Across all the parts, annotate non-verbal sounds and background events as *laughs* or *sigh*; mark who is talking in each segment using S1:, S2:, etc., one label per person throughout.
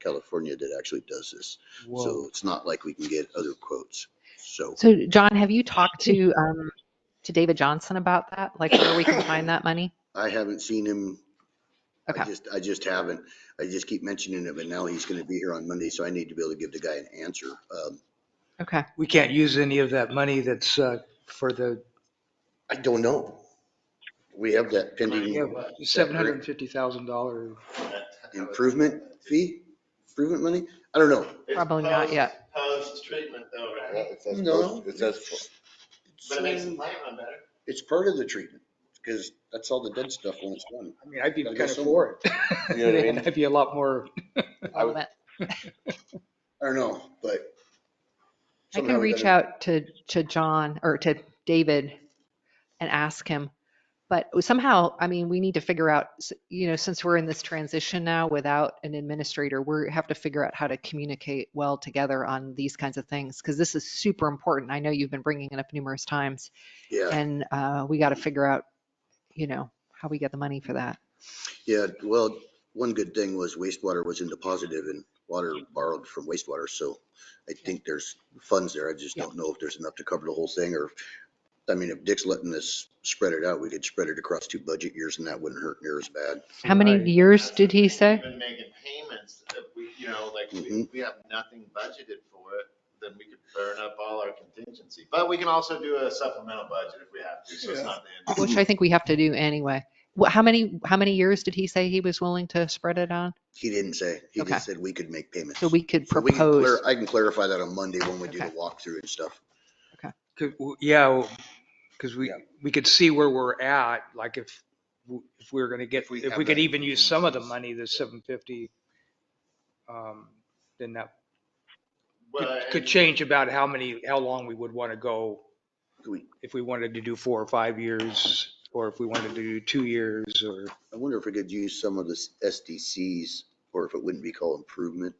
S1: California that actually does this. So
S2: Whoa.
S1: it's not like we can get other quotes. So
S3: So John, have you talked to, um, to David Johnson about that? Like where we can find that money?
S1: I haven't seen him. I
S3: Okay.
S1: just, I just haven't. I just keep mentioning it, but now he's going to be here on Monday, so I need to be able to give the guy an answer. Um,
S3: Okay.
S2: We can't use any of that money that's uh, for the
S1: I don't know. We have that pending
S2: $750,000.
S1: improvement fee, improvement money? I don't know.
S4: It's
S3: Probably not
S4: post-
S3: yet.
S4: Post-treatment though, right?
S5: It says,
S1: No.
S5: post- it says,
S4: But it makes the plant run better.
S1: uh, It's part of the treatment because that's all the dead stuff when it's done.
S2: I mean, I'd be
S1: I
S2: kind of
S1: guess so.
S2: for
S5: You know what I mean?
S2: it. I'd be a lot more,
S5: I
S3: All of
S5: would-
S3: it.
S1: I don't know, but.
S3: I
S1: somehow
S3: can
S1: we
S3: reach
S1: gotta-
S3: out to, to John or to David and ask him. But somehow, I mean, we need to figure out, s- you know, since we're in this transition now without an administrator, we have to figure out how to communicate well together on these kinds of things. Cause this is super important. I know you've been bringing it up numerous times
S1: Yeah,
S3: and, uh, we got to figure out, you know, how we get the money for that.
S1: yeah. Well, one good thing was wastewater was into positive and water borrowed from wastewater. So I think there's funds there. I just don't know if there's enough to cover the whole thing or, I mean, if Dick's letting us spread it out, we could spread it across two budget years and that wouldn't hurt near as bad.
S3: How many
S2: Right.
S3: years did he say?
S4: Been making payments, if we, you know, like, we,
S5: Mm-hmm.
S1: Mhm.
S4: we have nothing budgeted for it, then we could burn up all our contingency. But we can also do a supplemental budget if we have to, so it's not the end.
S3: Which I think we have to do anyway. What, how many, how many years did he say he was willing to spread it on?
S1: He didn't say. He
S3: Okay.
S1: just said we could make payments.
S3: So we could
S1: So we can clar-
S3: propose.
S1: I can clarify that on Monday when we do the
S3: Okay.
S1: walkthrough and stuff.
S2: 'cause- yeah, because we, we could see where we're at, like if, w- if we we're going to get,
S5: If we
S2: if
S5: have
S2: we could
S5: that
S2: even use some of the
S5: contingency.
S2: money, the 750, um, then that could-
S4: Well,
S2: could
S4: and-
S2: change about how many, how long we would want to go
S1: We-
S2: if we wanted to do four or five years, or if we wanted to do two years, or,
S1: I wonder if we could use some of the SDCs or if it wouldn't be called improvement.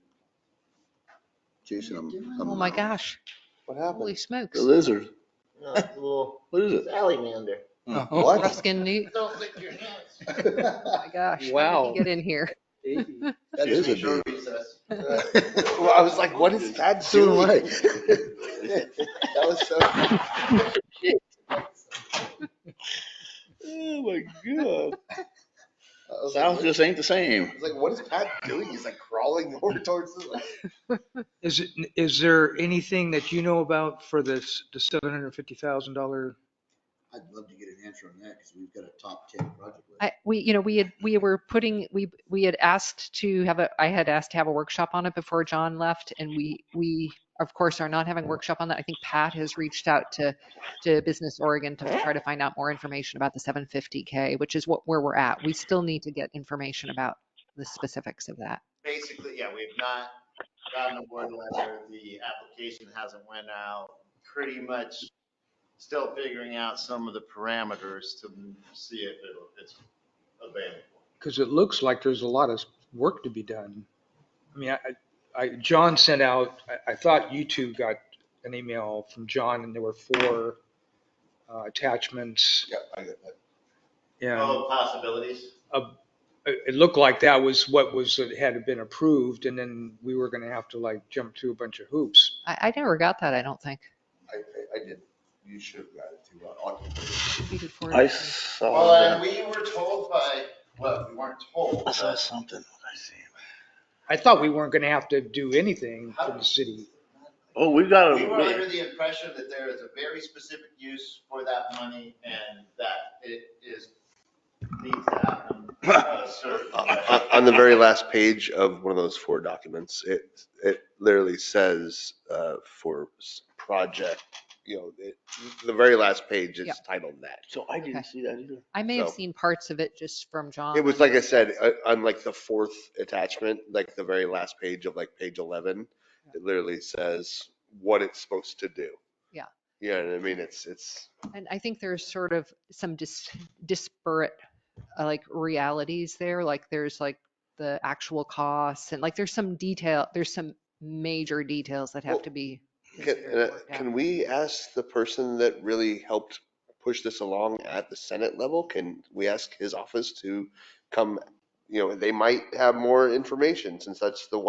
S1: Jason, I'm. I'm-
S3: Oh my gosh,
S5: What
S3: holy
S5: happened?
S3: smokes.
S5: The lizard.
S4: No, it's a little
S5: What is it?
S4: uh, salamander.
S1: Hmm.
S5: What?
S3: Ruskin Newt,
S4: Don't lick your hands.
S3: oh my gosh. how did he
S2: Wow.
S3: Get in here.
S1: That
S5: is a
S4: Make *laughs* sure recess.
S5: Well, I was like, what is that
S1: Soon *laughs*
S5: doing?
S1: right.
S5: That was so. Oh my
S4: I was
S5: God.
S4: like,
S5: Sounds
S4: what-
S5: just ain't the same.
S4: I was like, what is Pat doing? He's like crawling more towards the, like,
S2: Is, it is there anything that you know about for this, the $750,000?
S1: I'd love to get an answer on that because we've got a top ten project. list.
S3: I, we, you know, we had, we were putting, we, we had asked to have a, I had asked to have a workshop on it before John left. And we, we, of course, are not having a workshop on that. I think Pat has reached out to, to Business Oregon to try to find out more information about the 750K, which is what, where we're at. We still need to get information about the specifics of that.
S4: basically, yeah, we've not gotten a word letter. The application hasn't went out. Pretty much still figuring out some of the parameters to see if it'll- it's available.
S2: Because it looks like there's a lot of work to be done. I mean, I, I, John sent out, I, I thought you two got an email from John and there were four uh, attachments.
S5: Yeah, I get that.
S2: And
S4: All possibilities.
S2: it, it looked like that was what was, had been approved and then we were going to have to like jump through a bunch of hoops.
S3: I, I never got that, I don't think.
S5: I, I- I did. You should have got it too. I- I-
S3: You did forward
S5: I
S3: it to me.
S5: saw
S4: Well, and
S5: that.
S4: we were told by, well, we weren't told,
S5: I saw
S4: but
S5: something. What I see?
S2: I thought we weren't gonna have to do anything for the city.
S5: Oh, we've got
S4: we were under
S5: a,
S4: the impression that there is a very specific use for that money and that it is, needs to happen. uh, certain
S5: on, on the very last page of one of those four documents, it, it literally says, uh, for s- project, you know, it, the very last page is
S3: Yeah.
S5: titled that. So I
S3: didn't
S5: see that either.
S3: I may have
S5: So-
S3: seen parts of it just from John.
S5: It was, like I said, uh, on like the fourth attachment, like the very last page of like page 11, it literally says what it's supposed to do.
S3: Yeah.
S5: Yeah, I mean, it's, it's,
S3: And I think there's sort of some dis- disparate, uh, like realities there, like there's like the actual costs and like there's some detail, there's some major details that have
S5: Well,
S3: to be.
S5: can,
S3: considered
S5: uh,
S3: worked out.
S5: can we ask the person that really helped push this along at the Senate level? Can we ask his office to come, you know, they might have more information since that's the one.